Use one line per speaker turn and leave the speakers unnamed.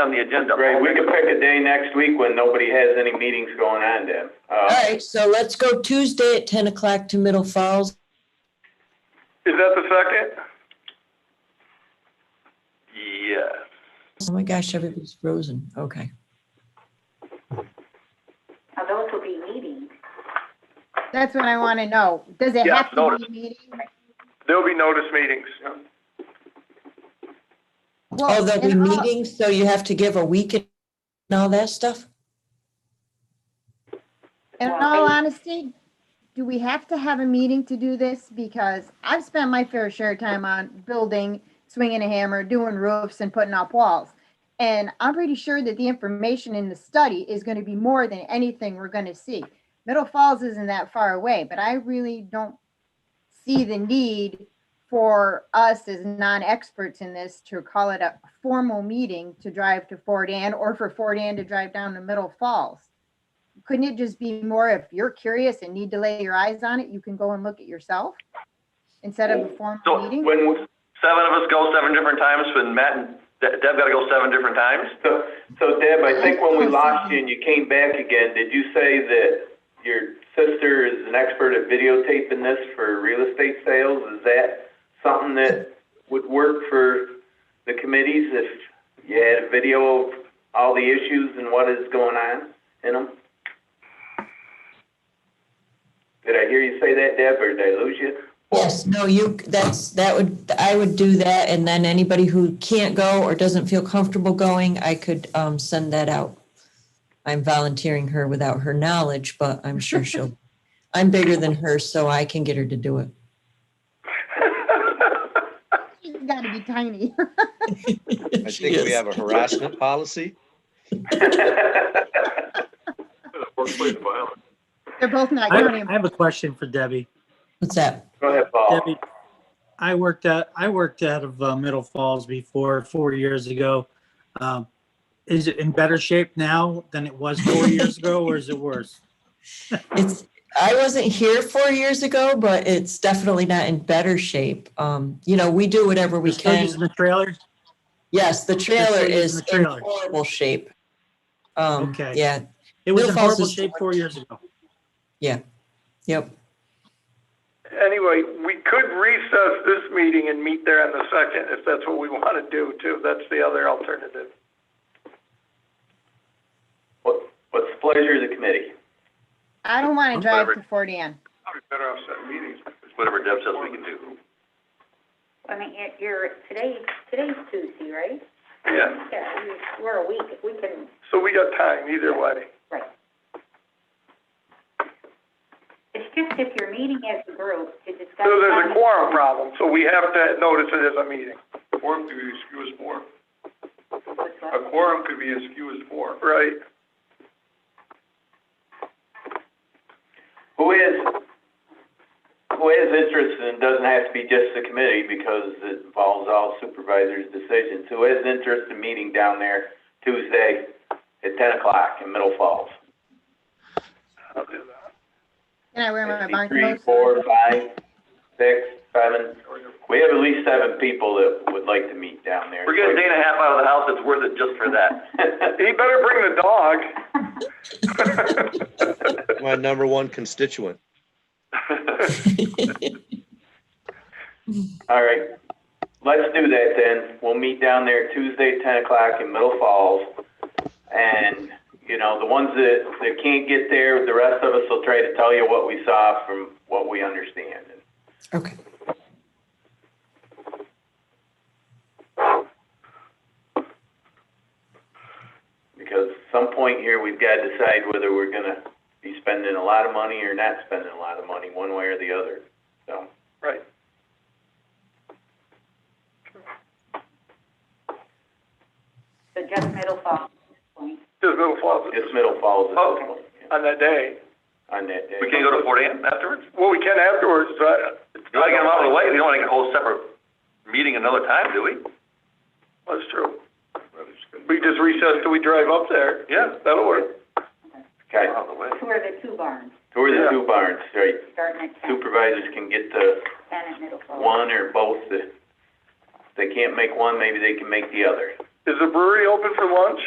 on the agenda.
Great, we could pick a day next week when nobody has any meetings going on then.
All
Uh,
right, so let's go Tuesday at ten o'clock to Middle Falls.
Is that the second? Yes.
Oh my gosh, everybody's frozen. Okay.
Now, those will be meetings.
That's what I want to know. Does it
Yeah,
have to be
notice.
a meeting?
There'll be notice meetings.
Well,
Oh, there'll be
and all-
meetings, so you have to give a week and all that stuff?
In all honesty, do we have to have a meeting to do this? Because I've spent my fair share of time on building, swinging a hammer, doing roofs and putting up walls. And I'm pretty sure that the information in the study is going to be more than anything we're going to see. Middle Falls isn't that far away, but I really don't see the need for us as non-experts in this to call it a formal meeting to drive to Fort Ann or for Fort Ann to drive down to Middle Falls couldn't it just be more if you're curious and need to lay your eyes on it, you can go and look at yourself? Instead of a
So-
formal meeting?
When, we-
Seven of us go seven different times, when Matt and De- Deb gotta go seven different times?
so, so Deb, I think when we lost you and you came back again, did you say that your sister is an expert at videotaping this for real estate sales? Is that something that would work for the committees if you had a video of all the issues and what is going on in them? Did I hear you say that, Deb, or did I lose you?
Yes, no, you, that's, that would, I would do that, and then anybody who can't go or doesn't feel comfortable going, I could um send that out. I'm volunteering her without her knowledge, but I'm sure she'll, I'm bigger than her, so I can get her to do it.
She's gotta be tiny.
I
She
think
is.
we have a harassment policy.
Workplace violence.
They're both not
I
counting.
I have a question for Debbie.
What's that?
Go ahead, Paul.
Debbie, I worked at, I worked out of uh, Middle Falls before, four years ago. Um, Is it in better shape now than it was four years ago, or is it worse?
It's, I wasn't here four years ago, but it's definitely not in better shape. Um, you know, we do whatever we
We're still
can.
using the trailer?
Yes, the trailer
using
is
the
in
trailer.
horrible shape. Um,
Okay.
yeah,
It was
Middle
in
Falls
horrible
is-
shape four years ago.
yep.
Anyway, we could recess this meeting and meet there on the second, if that's what we want to do too. That's the other alternative.
What, what's the pleasure of the committee?
I don't want to drive to Fort Ann.
Probably better off setting meetings.
Whatever Deb says we can do.
I mean, you're- you're, today, today's Tuesday, right?
Yeah,
Yeah, we- we're a week, we can,
so we got time either way.
it's just if you're meeting as a group to discuss.
So there's a quorum problem, so we have to notice it as a meeting. Quorum could be as few as four.
quorum.
quorum could be as few as four. Right.
Who is, who has interest and doesn't have to be just the committee because it involves all supervisors' decisions. Who has interest in meeting down there Tuesday at ten o'clock in Middle Falls?
I'll do that.
Can I wear my barn
Three,
clothes?
four, five, six, seven. We have at least seven people that would like to meet down there.
We're getting a day and a half out of the house, it's worth it just for that.
He better bring the dog.
My number one constituent.
All right, let's do that then. We'll meet down there Tuesday, at ten o'clock in Middle Falls. And, you know, the ones that, that can't get there, the rest of us will try to tell you what we saw from what we understand.
Okay.
Because some point here, we've got to decide whether we're gonna be spending a lot of money or not spending a lot of money, one way or the other, so.
Right.
So just middle fall, at this point.
Just Middle Falls
Just Middle Falls is
Oh. on that day.
on that day.
We can go to Fort Ann afterwards?
Well, we can afterwards, but
You wanna get them out of the way, we don't wanna get a whole separate meeting another time, do we?
that's true. We just recess till we drive up there.
Yeah.
That'll work.
Okay,
Out of the way.
Tour the two barns,
who are
Yeah.
the two barns, right?
starting at ten,
Supervisors can get the
ten at middle fall.
one or both, if they can't make one, maybe they can make the other.
Is the brewery open for lunch?